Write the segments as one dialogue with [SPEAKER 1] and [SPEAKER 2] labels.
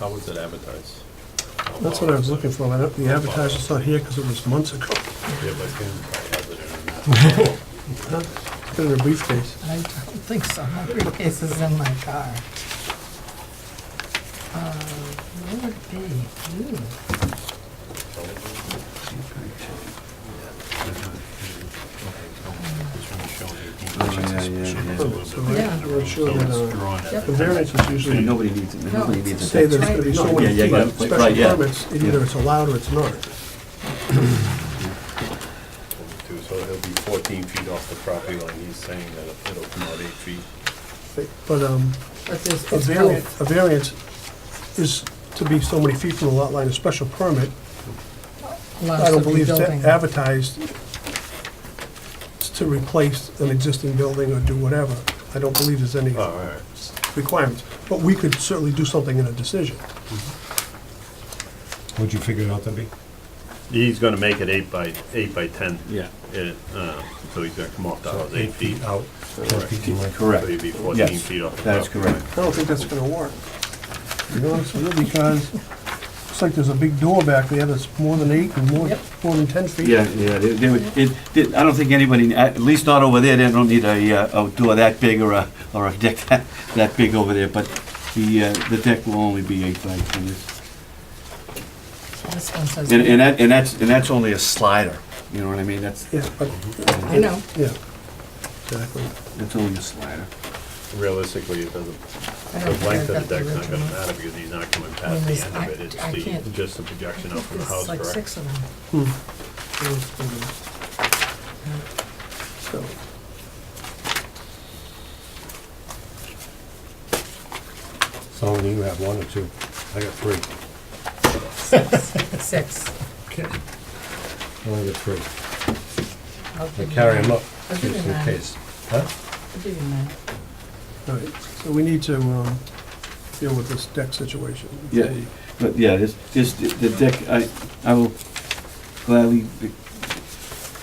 [SPEAKER 1] How was it advertised?
[SPEAKER 2] That's what I was looking for, and the advertisement's not here because it was months ago.
[SPEAKER 1] Yeah, but then I have it in that.
[SPEAKER 2] Huh? It's been in a briefcase.
[SPEAKER 3] I don't think so. My briefcase is in my car. Uh, Where would it be? Ooh.
[SPEAKER 4] Oh,
[SPEAKER 2] So I-
[SPEAKER 3] Yeah.
[SPEAKER 2] I'm not sure that, uh,
[SPEAKER 3] Yep.
[SPEAKER 2] the variance is
[SPEAKER 4] Yeah,
[SPEAKER 2] usually
[SPEAKER 4] Nobody needs it, nobody needs it.
[SPEAKER 2] say there's gonna be so
[SPEAKER 4] Yeah,
[SPEAKER 2] many
[SPEAKER 4] yeah,
[SPEAKER 2] feet,
[SPEAKER 4] yeah,
[SPEAKER 2] on
[SPEAKER 4] right,
[SPEAKER 2] special
[SPEAKER 4] yeah.
[SPEAKER 2] permits, and either
[SPEAKER 4] Yeah.
[SPEAKER 2] it's allowed or it's not.
[SPEAKER 1] So it'll be fourteen feet off the property line, he's saying that it'll come out eight feet.
[SPEAKER 2] But, um,
[SPEAKER 3] But there's,
[SPEAKER 2] a
[SPEAKER 3] it's
[SPEAKER 2] variance,
[SPEAKER 3] both.
[SPEAKER 2] a variance is to be so many feet from the lot line, a special permit,
[SPEAKER 3] Allows
[SPEAKER 2] I
[SPEAKER 3] to
[SPEAKER 2] don't
[SPEAKER 3] be
[SPEAKER 2] believe it's
[SPEAKER 3] building.
[SPEAKER 2] advertised to replace an existing building or do whatever. I don't believe there's any
[SPEAKER 1] Oh, All right.
[SPEAKER 2] requirements, but we could certainly do something in a decision.
[SPEAKER 5] What'd you figure it out to be?
[SPEAKER 1] He's gonna make it eight by, eight by ten.
[SPEAKER 4] Yeah.
[SPEAKER 1] It, uh, so he's gonna come off the
[SPEAKER 5] So
[SPEAKER 1] house eight feet.
[SPEAKER 5] out, ten
[SPEAKER 1] Correct.
[SPEAKER 5] feet in length.
[SPEAKER 1] So
[SPEAKER 4] Correct.
[SPEAKER 1] he'd be
[SPEAKER 4] Yes,
[SPEAKER 1] fourteen feet off the
[SPEAKER 4] That is
[SPEAKER 1] property
[SPEAKER 4] correct.
[SPEAKER 2] I don't think that's gonna work. To be honest with you, because it's like there's a big door back there that's more than eight and more,
[SPEAKER 3] Yep.
[SPEAKER 2] more than ten feet.
[SPEAKER 4] Yeah, yeah, they- they would- it, it- I don't think anybody, at least not over there, they don't need a uh, outdoor that big or a, or a deck that, that big over there, but the, uh, the deck will only be eight by ten.
[SPEAKER 3] This one says.
[SPEAKER 4] And, and that, and that's, and that's only a slider, you know what I mean? That's,
[SPEAKER 2] Yeah, but,
[SPEAKER 3] I know.
[SPEAKER 2] yeah, exactly.
[SPEAKER 4] that's only a slider.
[SPEAKER 1] Realistically, it doesn't,
[SPEAKER 3] I
[SPEAKER 1] the
[SPEAKER 3] don't think
[SPEAKER 1] length
[SPEAKER 3] I've
[SPEAKER 1] of
[SPEAKER 3] got
[SPEAKER 1] the deck's not gonna
[SPEAKER 3] the original.
[SPEAKER 1] matter because he's not coming
[SPEAKER 3] I mean,
[SPEAKER 1] past the
[SPEAKER 3] there's-
[SPEAKER 1] end
[SPEAKER 3] I-
[SPEAKER 1] of it. It's
[SPEAKER 3] I
[SPEAKER 1] the,
[SPEAKER 3] can't-
[SPEAKER 1] just the projection out from the house,
[SPEAKER 3] There's like
[SPEAKER 1] correct?
[SPEAKER 3] six of them.
[SPEAKER 2] So,
[SPEAKER 5] So only you have one or two. I got three.
[SPEAKER 3] Six.
[SPEAKER 5] Okay. I only got three.
[SPEAKER 3] I'll
[SPEAKER 5] I
[SPEAKER 3] give you
[SPEAKER 5] carry them
[SPEAKER 3] mine.
[SPEAKER 5] up,
[SPEAKER 3] I'll
[SPEAKER 5] just
[SPEAKER 3] give you
[SPEAKER 5] in
[SPEAKER 3] mine.
[SPEAKER 5] case. Huh?
[SPEAKER 3] I'll give you mine.
[SPEAKER 2] all right, so we need to, um, deal with this deck situation.
[SPEAKER 4] Yeah, but yeah, this, this, the deck, I, I will gladly be-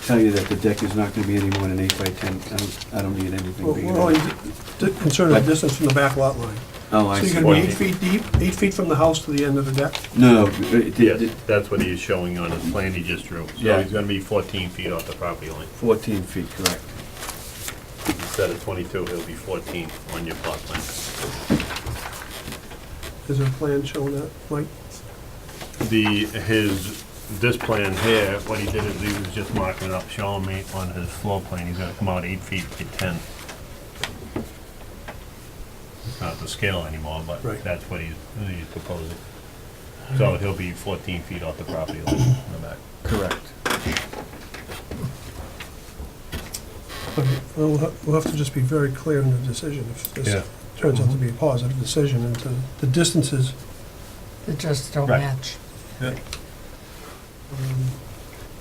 [SPEAKER 4] tell you that the deck is not gonna be any more than eight by ten. I don't, I don't need anything
[SPEAKER 2] Well,
[SPEAKER 4] bigger
[SPEAKER 2] We're only
[SPEAKER 4] than.
[SPEAKER 2] d- concerned with distance from the back lot line.
[SPEAKER 4] Oh,
[SPEAKER 2] So
[SPEAKER 4] I
[SPEAKER 2] you're
[SPEAKER 4] see.
[SPEAKER 2] gonna be eight
[SPEAKER 1] Well-
[SPEAKER 2] feet deep, eight feet from the house to the end of the deck?
[SPEAKER 4] No, no, it- it-
[SPEAKER 1] Yeah,
[SPEAKER 4] it-
[SPEAKER 1] that's what he's showing on his plan he just drew. So
[SPEAKER 4] Yeah.
[SPEAKER 1] he's gonna be fourteen feet off the property line.
[SPEAKER 4] fourteen feet, correct.
[SPEAKER 1] Instead of twenty-two, he'll be fourteen on your plot plan.
[SPEAKER 2] Is there a plan showing that, Mike?
[SPEAKER 1] The, his, this plan here, what he did is he was just marking up, showing me on his floor plan, he's gonna come out eight feet by ten. It's not the scale anymore, but
[SPEAKER 2] Right.
[SPEAKER 1] that's what he's, he's proposing. So he'll be fourteen feet off the property line in the back.
[SPEAKER 4] Correct.
[SPEAKER 2] Okay, Well, we'll ha- we'll have to just be very clear in the decision if
[SPEAKER 5] Yeah.
[SPEAKER 2] this turns out to be a positive decision, and to, the distances,
[SPEAKER 3] They just don't
[SPEAKER 5] Right.
[SPEAKER 3] match.
[SPEAKER 2] um,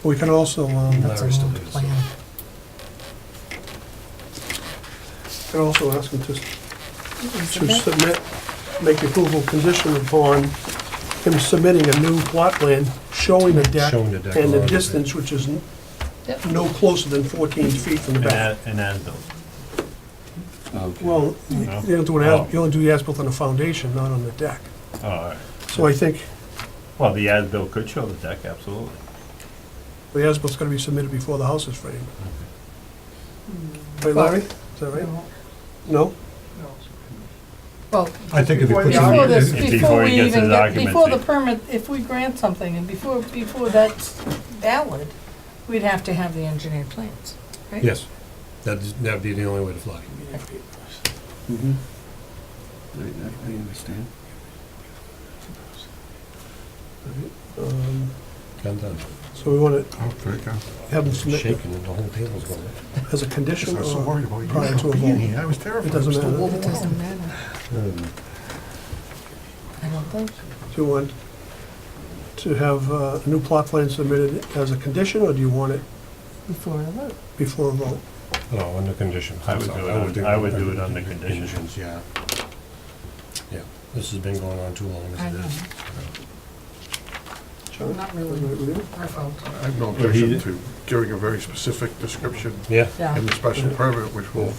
[SPEAKER 2] we can also, um,
[SPEAKER 3] That's a
[SPEAKER 5] Larry still
[SPEAKER 3] old
[SPEAKER 5] needs
[SPEAKER 3] plan.
[SPEAKER 2] can also ask them to, s-
[SPEAKER 3] Is
[SPEAKER 2] to
[SPEAKER 3] it that?
[SPEAKER 2] submit, make approval condition upon him submitting a new plot plan showing the deck
[SPEAKER 5] Showing the deck
[SPEAKER 2] and the
[SPEAKER 5] already.
[SPEAKER 2] distance, which is n-
[SPEAKER 3] Yep.
[SPEAKER 2] no closer than fourteen feet from the
[SPEAKER 1] And
[SPEAKER 2] back.
[SPEAKER 1] as, and as built.
[SPEAKER 4] Okay.
[SPEAKER 2] Well, you
[SPEAKER 1] No.
[SPEAKER 2] you don't do an,
[SPEAKER 1] Oh.
[SPEAKER 2] as- you only do the as-built on the foundation, not on the deck.
[SPEAKER 1] All right.
[SPEAKER 2] So I think
[SPEAKER 1] Well, the as-built could show the deck, absolutely.
[SPEAKER 2] the as-bilt's gonna be submitted before the house is
[SPEAKER 3] Hmm.
[SPEAKER 2] framed. Right, Larry? Is that right? No?
[SPEAKER 3] No. Well,
[SPEAKER 5] I think if you put some.
[SPEAKER 3] before this,
[SPEAKER 1] if-
[SPEAKER 5] if-
[SPEAKER 3] before
[SPEAKER 1] before he
[SPEAKER 3] we
[SPEAKER 1] gets
[SPEAKER 3] even
[SPEAKER 1] his
[SPEAKER 3] get,
[SPEAKER 1] occupancy.
[SPEAKER 3] before the permit, if we grant something and before, before that's valid, we'd have to have the engineered plans, right?
[SPEAKER 5] Yes, that'd, that'd be the only way to fly.
[SPEAKER 4] Mhm. I, I I understand.
[SPEAKER 2] Um,
[SPEAKER 5] Done, done.
[SPEAKER 2] So we want to
[SPEAKER 6] Oh, very good.
[SPEAKER 2] have them submit it
[SPEAKER 5] Shaking and the whole table's going.
[SPEAKER 2] as a condition
[SPEAKER 6] I was so
[SPEAKER 2] or
[SPEAKER 6] worried about you.
[SPEAKER 2] prior to a
[SPEAKER 6] Being
[SPEAKER 2] vote?
[SPEAKER 6] here, I was terrified.
[SPEAKER 2] It doesn't
[SPEAKER 6] I was
[SPEAKER 2] matter.
[SPEAKER 3] It doesn't matter,
[SPEAKER 5] Um,
[SPEAKER 3] I don't think.
[SPEAKER 2] Do you want to have uh, a new plot plan submitted as a condition, or do you want it
[SPEAKER 3] Before the vote.
[SPEAKER 2] before a vote?
[SPEAKER 5] No, under conditions.
[SPEAKER 1] I would
[SPEAKER 5] that's all.
[SPEAKER 1] do it on- I would do it under conditions.
[SPEAKER 5] Yeah. Yeah, this has been going on too long
[SPEAKER 3] I
[SPEAKER 5] as it
[SPEAKER 3] know,
[SPEAKER 5] is.
[SPEAKER 2] John?
[SPEAKER 3] Not
[SPEAKER 2] is
[SPEAKER 3] really.
[SPEAKER 2] that right with you?
[SPEAKER 3] our fault.
[SPEAKER 6] I have no
[SPEAKER 1] he-
[SPEAKER 6] objection to giving a very specific description
[SPEAKER 5] Yeah.
[SPEAKER 3] Yeah.
[SPEAKER 6] in the special permit, which will